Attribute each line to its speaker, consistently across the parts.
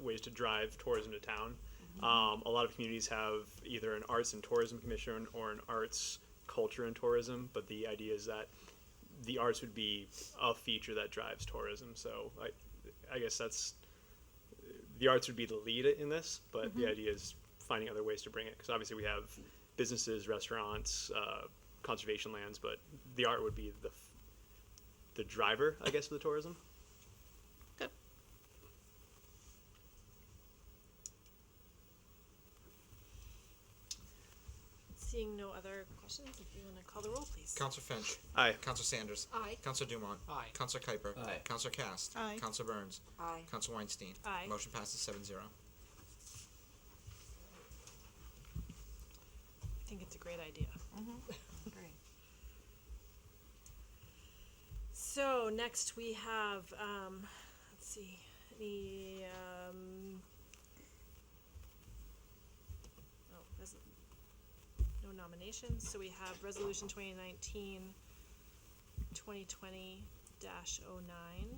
Speaker 1: ways to drive tourism to town. Um, a lot of communities have either an arts and tourism commission or an arts culture and tourism, but the idea is that the arts would be a feature that drives tourism. So I, I guess that's the arts would be the lead in this, but the idea is finding other ways to bring it because obviously we have businesses, restaurants, uh, conservation lands, but the art would be the f- the driver, I guess, of the tourism.
Speaker 2: Good. Seeing no other questions, if you want to call the roll, please.
Speaker 3: Counselor Finch.
Speaker 1: Aye.
Speaker 3: Counselor Sanders.
Speaker 2: Aye.
Speaker 3: Counselor Dumont.
Speaker 4: Aye.
Speaker 3: Counselor Kuiper.
Speaker 4: Aye.
Speaker 3: Counselor Cast.
Speaker 5: Aye.
Speaker 3: Counselor Burns.
Speaker 5: Aye.
Speaker 3: Counselor Weinstein.
Speaker 2: Aye.
Speaker 3: Motion passes seven zero.
Speaker 2: I think it's a great idea.
Speaker 5: Great.
Speaker 2: So next we have, um, let's see, the, um, oh, there's no nominations, so we have resolution 2019-2020 dash oh nine,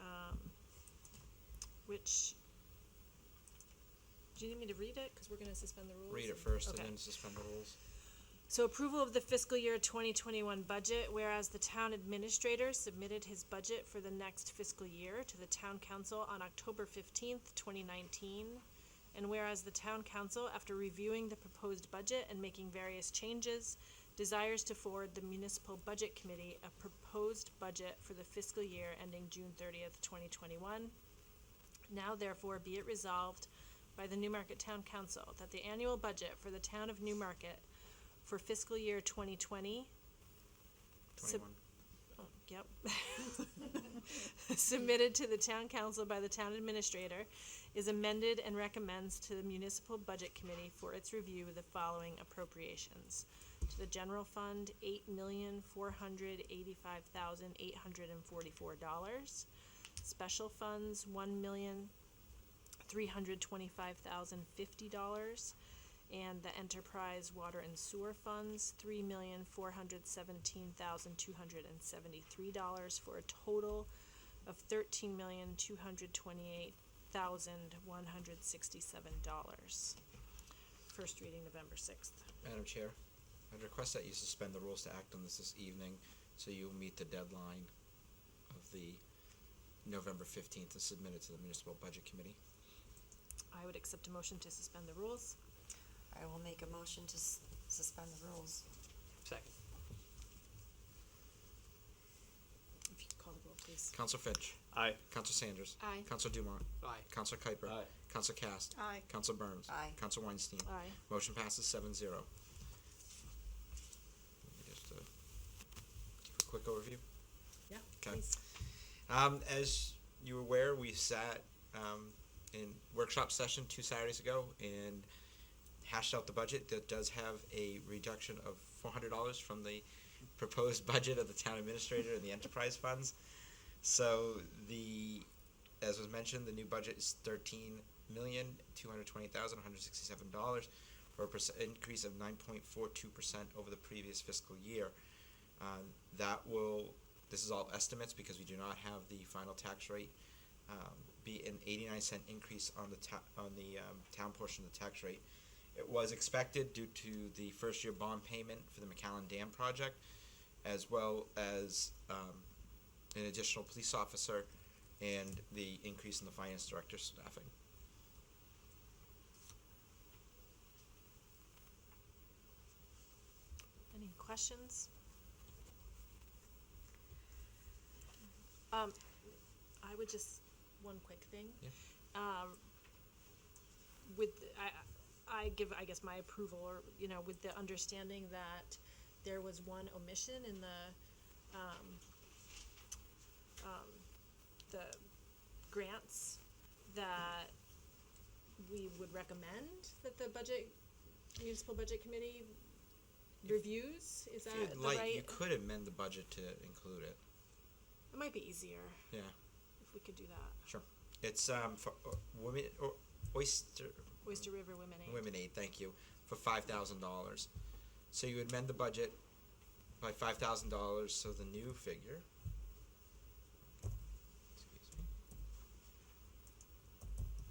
Speaker 2: um, which, do you need me to read it? Cause we're gonna suspend the rules.
Speaker 3: Read it
Speaker 2: and-
Speaker 3: first
Speaker 2: okay.
Speaker 3: and then suspend the rules.
Speaker 2: So approval of the fiscal year twenty twenty-one budget, whereas the town administrator submitted his budget for the next fiscal year to the town council on October fifteenth, twenty nineteen. And whereas the town council, after reviewing the proposed budget and making various changes, desires to forward the municipal budget committee a proposed budget for the fiscal year ending June thirtieth, twenty twenty-one. Now therefore be it resolved by the Newmarket Town Council that the annual budget for the town of Newmarket for fiscal year twenty twenty.
Speaker 3: Twenty one.
Speaker 2: Yep. Submitted to the town council by the town administrator is amended and recommends to the municipal budget committee for its review the following appropriations. To the general fund, eight million, four hundred eighty-five thousand, eight hundred and forty-four dollars. Special funds, one million, three hundred twenty-five thousand, fifty dollars and the enterprise water and sewer funds, three million four hundred seventeen thousand two hundred and seventy-three dollars for a total of thirteen million two hundred twenty-eight thousand one hundred sixty-seven dollars. First reading November sixth.
Speaker 3: Madam Chair, I'd request that you suspend the rules to act on this this evening so you'll meet the deadline of the November fifteenth to submit it to the municipal budget committee.
Speaker 2: I would accept a motion to suspend the rules.
Speaker 5: I will make a motion to s- suspend the rules.
Speaker 4: Second.
Speaker 2: If you could call the roll, please.
Speaker 3: Counselor Finch.
Speaker 1: Aye.
Speaker 3: Counselor Sanders.
Speaker 2: Aye.
Speaker 3: Counselor Dumont.
Speaker 4: Aye.
Speaker 3: Counselor Kuiper.
Speaker 4: Aye.
Speaker 3: Counselor Cast.
Speaker 5: Aye.
Speaker 3: Counselor Burns.
Speaker 5: Aye.
Speaker 3: Counselor Weinstein.
Speaker 2: Aye.
Speaker 3: Motion passes seven zero. Just uh, give a quick overview.
Speaker 2: Yeah,
Speaker 3: Okay. Um, as you were aware, we sat um, in workshop session two Saturdays ago and hashed out the budget that does have a reduction of four hundred dollars from the proposed budget of the town administrator and the enterprise funds. So the, as was mentioned, the new budget is thirteen million two hundred twenty thousand one hundred sixty-seven dollars, or a percent increase of nine point four two percent over the previous fiscal year. Uh, that will, this is all estimates because we do not have the final tax rate. Um, be an eighty-nine cent increase on the ta- on the um, town portion of the tax rate. It was expected due to the first-year bond payment for the McAllen Dam project, as well as um, an additional police officer, and the increase in the finance director's staffing.
Speaker 2: Any questions? Um, I would just, one quick thing.
Speaker 3: Yeah.
Speaker 2: Um, with, I, I give, I guess, my approval, or, you know, with the understanding that there was one omission in the, um, um, the grants that we would recommend that the budget, municipal budget committee reviews, is that
Speaker 3: If you'd
Speaker 2: the
Speaker 3: like, you
Speaker 2: right?
Speaker 3: could amend the budget to include it.
Speaker 2: It might be easier
Speaker 3: Yeah,
Speaker 2: if we could do that.
Speaker 3: sure. It's um for uh, women or oyster
Speaker 2: Oyster River Women Aid.
Speaker 3: women aid. Thank you for five thousand dollars. So you amend the budget by five thousand dollars. So the new figure